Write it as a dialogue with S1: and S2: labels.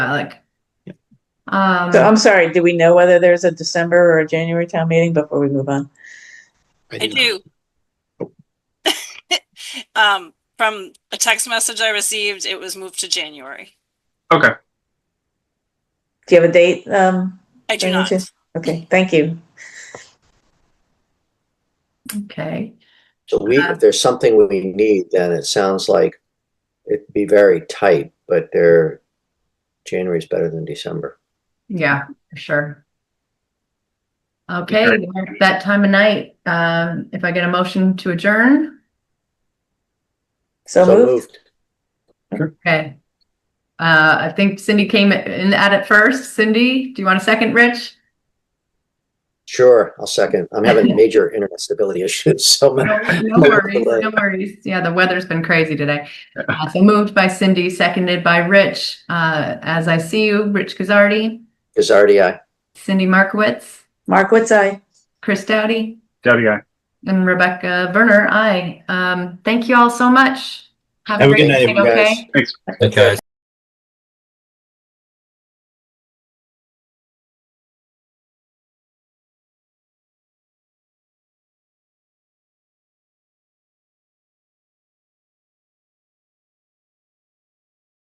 S1: like.
S2: Yep.
S1: Um,
S3: So I'm sorry, do we know whether there's a December or a January town meeting before we move on?
S4: I do. Um, from a text message I received, it was moved to January.
S2: Okay.
S3: Do you have a date? Um,
S4: I do not.
S3: Bernadette? Okay, thank you.
S1: okay,
S5: So we, if there's something we need, then it sounds like it'd be very tight, but they're, January's better than December.
S1: yeah, for sure. Okay, we're at that time of night, um, if I get a motion to adjourn,
S3: So moved.
S1: okay. Uh, I think Cindy came in at it first. Cindy, do you want a second, Rich?
S5: Sure, I'll second. I'm having major internet stability issues, so
S1: No
S5: my-
S1: no worries, no worries. Yeah, the weather's been crazy today. Uh, So moved by Cindy, seconded by Rich. Uh, as I see you, Rich Guzardi,
S5: Gazardi, aye.
S1: Cindy Markowitz,
S3: Mark, what's I?
S1: Chris Dowdy,
S2: Daddy guy.
S1: and Rebecca Werner. Aye. Um, thank you all so much. Have a
S6: Have a
S1: great
S6: good night,
S1: night, okay?
S5: Guys.
S6: Okay.